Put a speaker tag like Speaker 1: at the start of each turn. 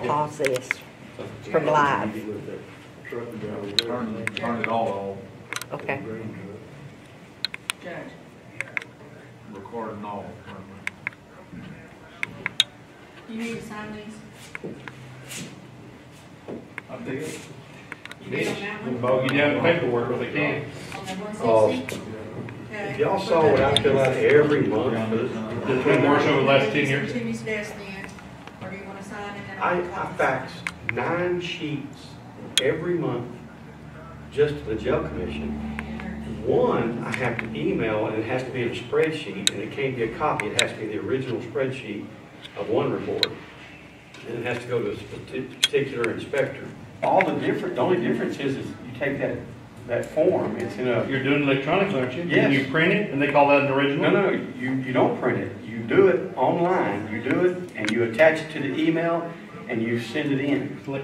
Speaker 1: pause this from live,
Speaker 2: Turn, turn it all
Speaker 1: okay?
Speaker 3: Judge,
Speaker 2: off, record and all.
Speaker 3: you need to sign these?
Speaker 2: I did.
Speaker 3: You did on that one?
Speaker 4: Bog you down in paperwork if they can.
Speaker 3: On that
Speaker 5: Oh.
Speaker 3: one sixty? Okay.
Speaker 5: Y'all saw what I fill out every month for this.
Speaker 4: It's been worse over the last ten years.
Speaker 3: Timmy's desk then, or do you wanna sign it and
Speaker 5: I,
Speaker 3: I'll
Speaker 5: I
Speaker 3: copy?
Speaker 5: fax nine sheets every month just to the jail commission. One, I have to email and it has to be in a spreadsheet and it can't be a copy. It has to be the original spreadsheet of one report. And it has to go to a parti- particular inspector.
Speaker 6: All the different, the only difference is, is you take that, that form, it's in a,
Speaker 4: You're doing electronics, aren't you?
Speaker 6: Yes.
Speaker 4: And you print it and they call that an
Speaker 6: no,
Speaker 4: original?
Speaker 6: no, you, you don't print it. You do it online, you do it, and you attach it to the email, and you send it in.